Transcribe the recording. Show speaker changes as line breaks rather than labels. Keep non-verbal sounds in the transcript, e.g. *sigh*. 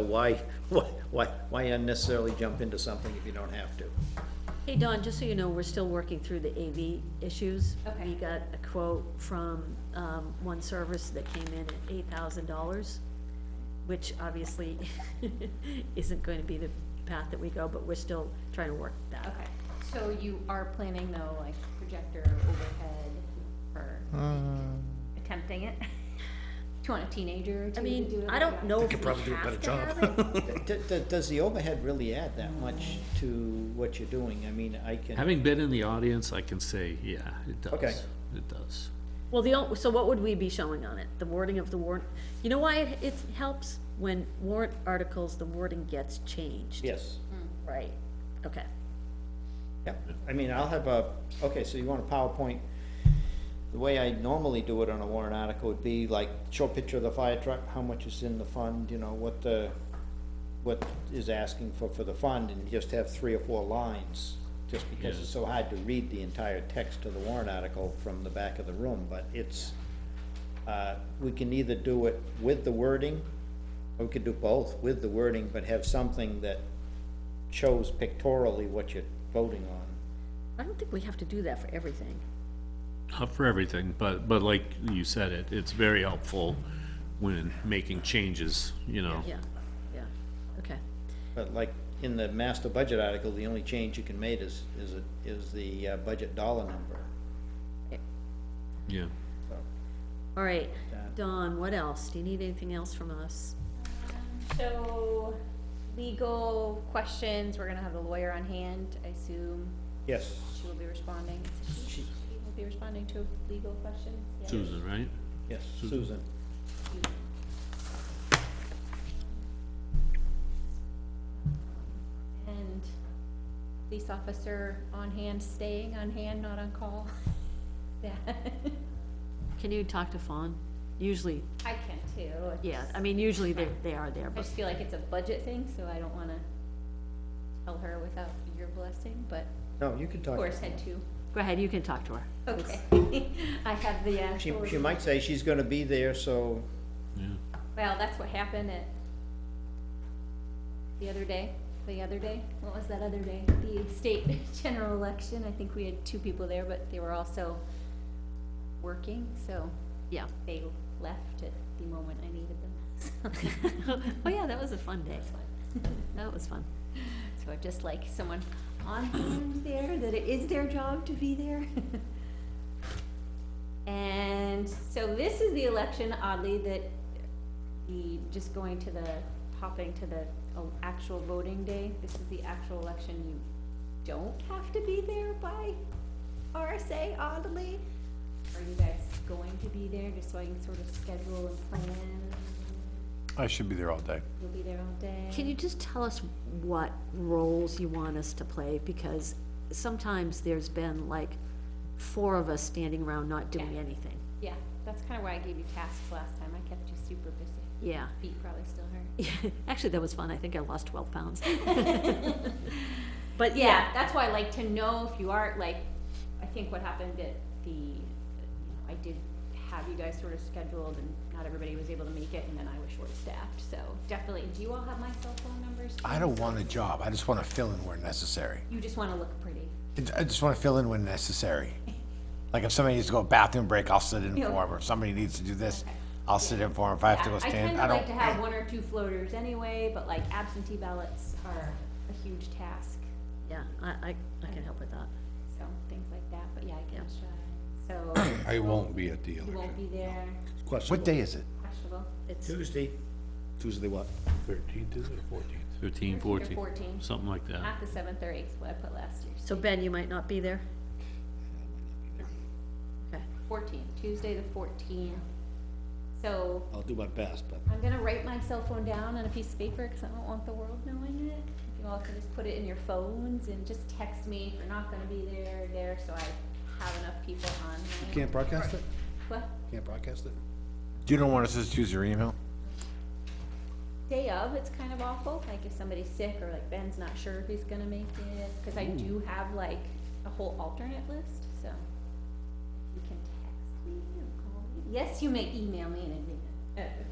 Why, *laughs* why, why why unnecessarily jump into something if you don't have to?
Hey, Don, just so you know, we're still working through the AV issues.
Okay.
We got a quote from, um, one service that came in at eight thousand dollars, which obviously *laughs* isn't going to be the path that we go, but we're still trying to work that. out.
Okay, so you are planning though, like projector overhead for attempting it? Do you want a teenager or two
I
to do it?
mean, I don't know if we have to have it.
D- d- Does the overhead really add that much to what you're doing? I mean, I can,
Having been in the audience, I can say, yeah, it does.
Okay.
It does.
Well, the, on- so what would we be showing on it? The wording of the warrant? You know why it, it helps? When warrant articles, the wording gets changed.
yes,
Right, okay.
yeah. I mean, I'll have a, okay, so you want a PowerPoint. The way I normally do it on a warrant article would be like, show a picture of the fire truck, how much is in the fund, you know, what the, what is asking for, for the fund, and just have three or four lines, just because it's so hard to read the entire text of the warrant article from the back of the room, but it's, uh, we can either do it with the wording, or we could do both with the wording, but have something that shows pictorially what you're voting on.
I don't think we have to do that for everything.
Not for everything, but, but like you said it, it's very helpful when making changes, you know?
Yeah, yeah, okay.
But like, in the master budget article, the only change you can make is, is, it- is the uh, budget dollar number.
Yeah.
All right,
That.
Dawn, what else? Do you need anything else from us?
So, legal questions, we're gonna have the lawyer on hand, I assume
Yes,
she will be responding. Is it She she will be responding to legal questions? Yeah.
Susan, right?
yes, Susan.
And police officer on hand, staying on hand, not on call. *laughs* Yeah,
Can you talk to Fawn? Usually,
I can too. It's
yeah,
just-
I mean, usually they, they are there,
I
but,
just feel like it's a budget thing, so I don't wanna tell her without your blessing, but
No, you can
of
talk.
course had to.
go ahead, you can talk to her.
Okay, *laughs* I have the
She,
actual,
she might say she's gonna be there, so,
Yeah.
well, that's what happened at the other day, the other day, what was that other day? The state *laughs* general election, I think we had two people there, but they were also working, so
Yeah.
they left at the moment I needed them. *laughs*
*laughs* Oh, yeah, that was a fun day.
That's fine.
That was fun.
*laughs* So I'd just like someone on hand there, that it is their job to be there. *laughs* And so this is the election oddly that the, just going to the, hopping to the oh, actual voting day, this is the actual election you don't have to be there by RSA oddly. Are you guys going to be there, just so I can sort of schedule and plan?
I should be there all day.
You'll be there all day?
Can you just tell us what roles you want us to play? Because sometimes there's been like four of us standing around not doing
Yeah.
anything.
Yeah, that's kind of why I gave you tasks last time. I kept you super busy.
Yeah.
Feet probably still hurt.
*laughs* Actually, that was fun. I think I lost twelve pounds. But
But yeah, that's why I like to know if you are, like, I think what happened at the, you know, I did have you guys sort of scheduled and not everybody was able to make it and then I was short-staffed, so definitely. Do you all have my cell phone numbers?
I don't want a job. I just want to fill in where necessary.
You just want to look pretty.
It- I just want to fill in when necessary. Like if somebody needs to go bathroom break, I'll sit in for
Yeah.
'em. If somebody needs to do this, I'll sit in for 'em. If I have to go
I
stand,
kind
I
of like to have
don't.
one or two floaters anyway, but like absentee ballots are a huge task.
Yeah, I, I, I can help with that.
so things like that, but yeah, I can try,
*coughs*
so.
I won't be at the
You won't
election.
be there,
What day is it?
questionable.
It's,
Tuesday,
Tuesday what? Thirteenth, is it, fourteenth?
Thirteen,
Thirteenth or
fourteen,
fourteen.
something like that.
Not the seventh or eighth, what I put last year.
so Ben, you might not be there? Okay.
Fourteen, Tuesday the fourteenth. So
I'll do my best, but.
I'm gonna write my cell phone down on a piece of paper, cause I don't want the world knowing it. If You all can just put it in your phones and just text me if you're not gonna be there, or there, so I have enough people on. my-
Can't broadcast it?
What,
Can't broadcast it?
You don't want us to just use your email?
day of, it's kind of awful, like if somebody's sick or like Ben's not sure if he's gonna make it, cause I do have like a whole alternate list, so. You can text me or call me, yes, you may email me in advance, uh,